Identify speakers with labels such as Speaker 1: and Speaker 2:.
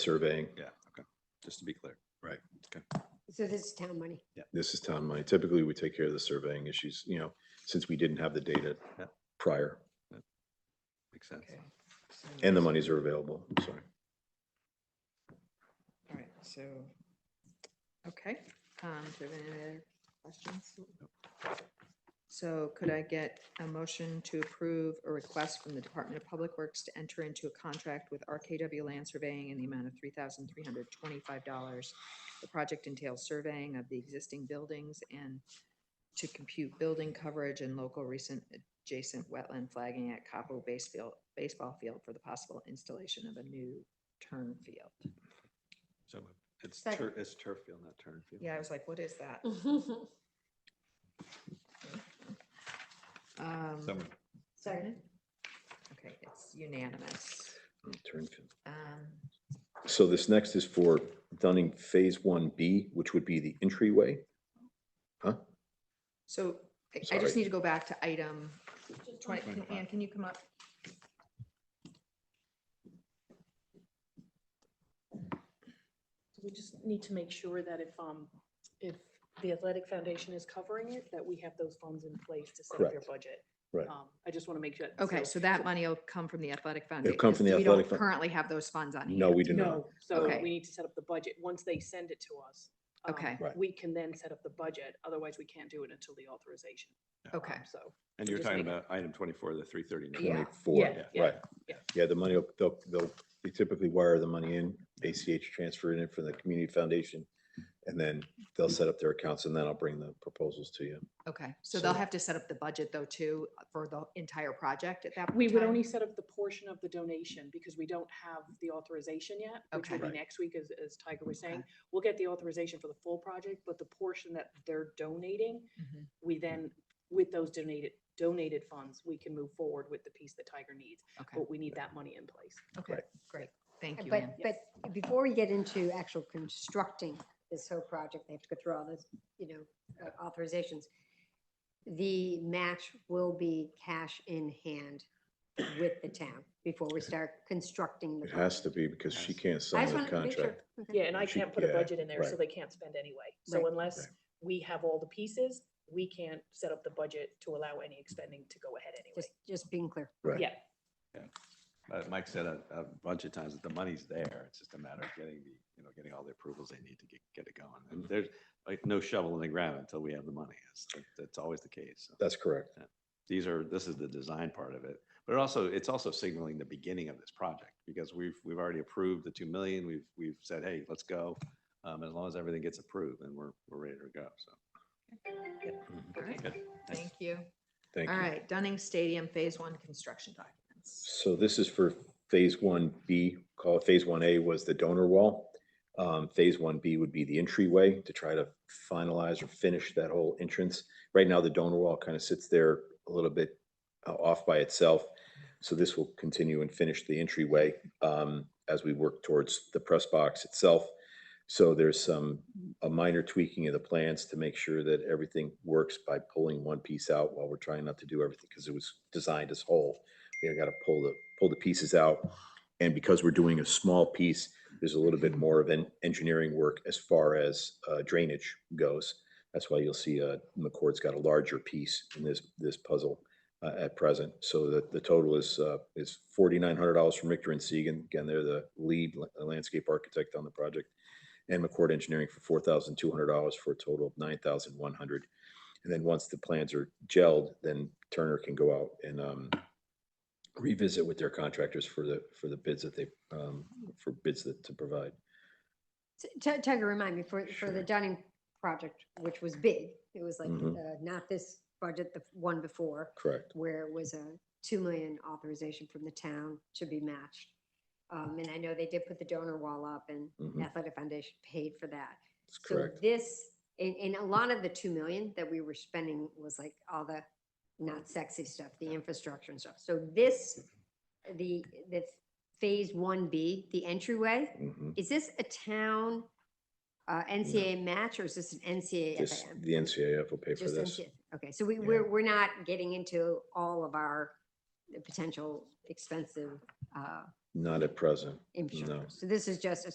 Speaker 1: surveying.
Speaker 2: Yeah, okay, just to be clear.
Speaker 3: So this is town money.
Speaker 1: This is town money. Typically, we take care of the surveying issues, you know, since we didn't have the data
Speaker 2: Yeah.
Speaker 1: prior
Speaker 2: Makes sense.
Speaker 4: So
Speaker 1: and the
Speaker 4: it's-
Speaker 1: monies are available. Sorry.
Speaker 4: All right, so, okay, um, do we have any other questions? So could I get a motion to approve a request from the Department of Public Works to enter into a contract with RKW Land Surveying in the amount of three thousand three hundred twenty-five dollars? The project entails surveying of the existing buildings and to compute building coverage and local recent adjacent wetland flagging at Capo Baseball, baseball field for the possible installation of a new turn field.
Speaker 2: So moved. It's
Speaker 3: Second.
Speaker 2: tur- it's turf field, not turn field.
Speaker 4: Yeah, I was like, what is that?
Speaker 2: So
Speaker 4: Um,
Speaker 2: moved.
Speaker 3: Sorry.
Speaker 4: Okay, it's unanimous.
Speaker 1: Turnfield.
Speaker 4: Um,
Speaker 1: So this next is for Dunning Phase One B, which would be the entryway.
Speaker 4: So I- I
Speaker 1: Sorry.
Speaker 4: just need to go back to item twenty, can- Ann, can you come up?
Speaker 5: We just need to make sure that if, um, if the Athletic Foundation is covering it, that we have those funds in place to set up your
Speaker 1: Correct.
Speaker 5: budget.
Speaker 1: Right.
Speaker 5: Um, I just want to make sure.
Speaker 4: Okay, so that money will come from the athletic foundation.
Speaker 1: come from the
Speaker 4: We don't
Speaker 1: athletic fun-
Speaker 4: currently have those funds on hand.
Speaker 1: No, we do not.
Speaker 5: No, so
Speaker 4: Okay.
Speaker 5: we need to set up the budget. Once they send it to us. um,
Speaker 4: Okay.
Speaker 1: Right.
Speaker 5: We can then set up the budget. Otherwise, we can't do it until the authorization.
Speaker 4: Okay,
Speaker 5: So.
Speaker 2: And you were
Speaker 5: Just
Speaker 2: talking
Speaker 5: make-
Speaker 2: about item twenty-four, the three thirty.
Speaker 4: Yeah.
Speaker 1: Twenty-four,
Speaker 5: Yeah, yeah,
Speaker 1: right.
Speaker 5: yeah.
Speaker 1: Yeah, the money, will- they'll, they'll, they typically wire the money in, ACH transfer it in from the community foundation. And then they'll set up their accounts and then I'll bring the proposals to you.
Speaker 4: okay. So they'll
Speaker 1: So-
Speaker 4: have to set up the budget though too for the entire project at that point.
Speaker 5: We would
Speaker 4: in time?
Speaker 5: only set up the portion of the donation because we don't have the authorization yet, which
Speaker 4: Okay.
Speaker 5: will
Speaker 1: Right.
Speaker 5: be next week, as, as Tiger was saying.
Speaker 4: Okay.
Speaker 5: We'll get the authorization for the full project, but the portion that they're donating,
Speaker 4: Mhm.
Speaker 5: we then, with those donated, donated funds, we can move forward with the piece that Tiger needs,
Speaker 4: Okay,
Speaker 5: but we need that money in place.
Speaker 4: okay,
Speaker 1: Right.
Speaker 4: great. Thank you,
Speaker 3: But,
Speaker 4: Ann.
Speaker 3: but before we get into actual constructing this whole project, they have to go through all those, you know, uh, authorizations. The match will be cash in hand with the town before we start constructing the.
Speaker 1: It has to
Speaker 3: project.
Speaker 1: be because she can't
Speaker 3: I
Speaker 1: sign
Speaker 3: just
Speaker 1: the
Speaker 3: wanted to make sure.
Speaker 1: contract.
Speaker 3: Okay.
Speaker 5: Yeah, and I
Speaker 1: She-
Speaker 5: can't put a
Speaker 1: yeah,
Speaker 5: budget in there, so
Speaker 1: right.
Speaker 5: they can't spend anyway.
Speaker 4: Right.
Speaker 5: So unless
Speaker 1: Right.
Speaker 5: we have all the pieces, we can't set up the budget to allow any expending to go ahead
Speaker 3: Just,
Speaker 5: anyway.
Speaker 3: just being clear.
Speaker 1: Right.
Speaker 5: Yeah,
Speaker 2: Uh, Mike said a, a bunch of times that the money's there. It's just a matter of getting the, you know, getting all the approvals they need to get, get it going. And there's like no shovel in the ground until we have the money. It's, that's always the case. So
Speaker 1: That's correct.
Speaker 2: These are, this is the design part of it. But it also, it's also signaling the beginning of this project because we've, we've already approved the two million. We've, we've said, hey, let's go. Um, as long as everything gets approved, then we're, we're ready to go. So.
Speaker 4: All right,
Speaker 2: Good. Thanks.
Speaker 4: Thank you.
Speaker 1: Thank
Speaker 4: Mm-hmm. All
Speaker 1: you.
Speaker 4: right, Dunning Stadium Phase One construction documents.
Speaker 1: So this is for phase one B, call it phase one A was the donor wall. Um, phase one B would be the entryway to try to finalize or finish that whole entrance. Right now, the donor wall kind of sits there a little bit uh, off by itself. So this will continue and finish the entryway, um, as we work towards the press box itself. So there's some, a minor tweaking of the plans to make sure that everything works by pulling one piece out while we're trying not to do everything, because it was designed as whole you know, gotta pull the, pull the pieces out. And because we're doing a small piece, there's a little bit more of an engineering work as far as uh, drainage goes. That's why you'll see, uh, McCord's got a larger piece in this, this puzzle, uh, at present. So the, the total is, uh, is forty-nine hundred dollars from Richter and Seagan. Again, they're the lead la- landscape architect on the project. And McCord Engineering for four thousand two hundred dollars for a total of nine thousand one hundred. And then once the plans are gelled, then Turner can go out and, um, revisit with their contractors for the, for the bids that they, um, for bids that to provide.
Speaker 3: T- Ti- Tiger, remind me, for, for
Speaker 1: Sure.
Speaker 3: the Dunning project, which was big, it was like,
Speaker 1: Mhm.
Speaker 3: uh, not this budget, the one before,
Speaker 1: Correct.
Speaker 3: where it was a two million authorization from the town to be matched. Um, and I know they did put the donor wall up and
Speaker 1: Mhm.
Speaker 3: Athletic Foundation paid for that.
Speaker 1: That's
Speaker 3: So
Speaker 1: correct.
Speaker 3: this, and, and a lot of the two million that we were spending was like all the not sexy stuff, the infrastructure and stuff. So this, the, the phase one B, the entryway,
Speaker 1: Mhm.
Speaker 3: is this a town uh, NCAA match or is this an NCAA
Speaker 1: This,
Speaker 3: FAM?
Speaker 1: the NCAF will pay for
Speaker 3: uh, Just
Speaker 1: this.
Speaker 3: NCAA Okay, so we,
Speaker 1: Yeah.
Speaker 3: we're, we're not getting into all of our potential expensive uh,
Speaker 1: Not at present.
Speaker 3: infrastructure. So this is just a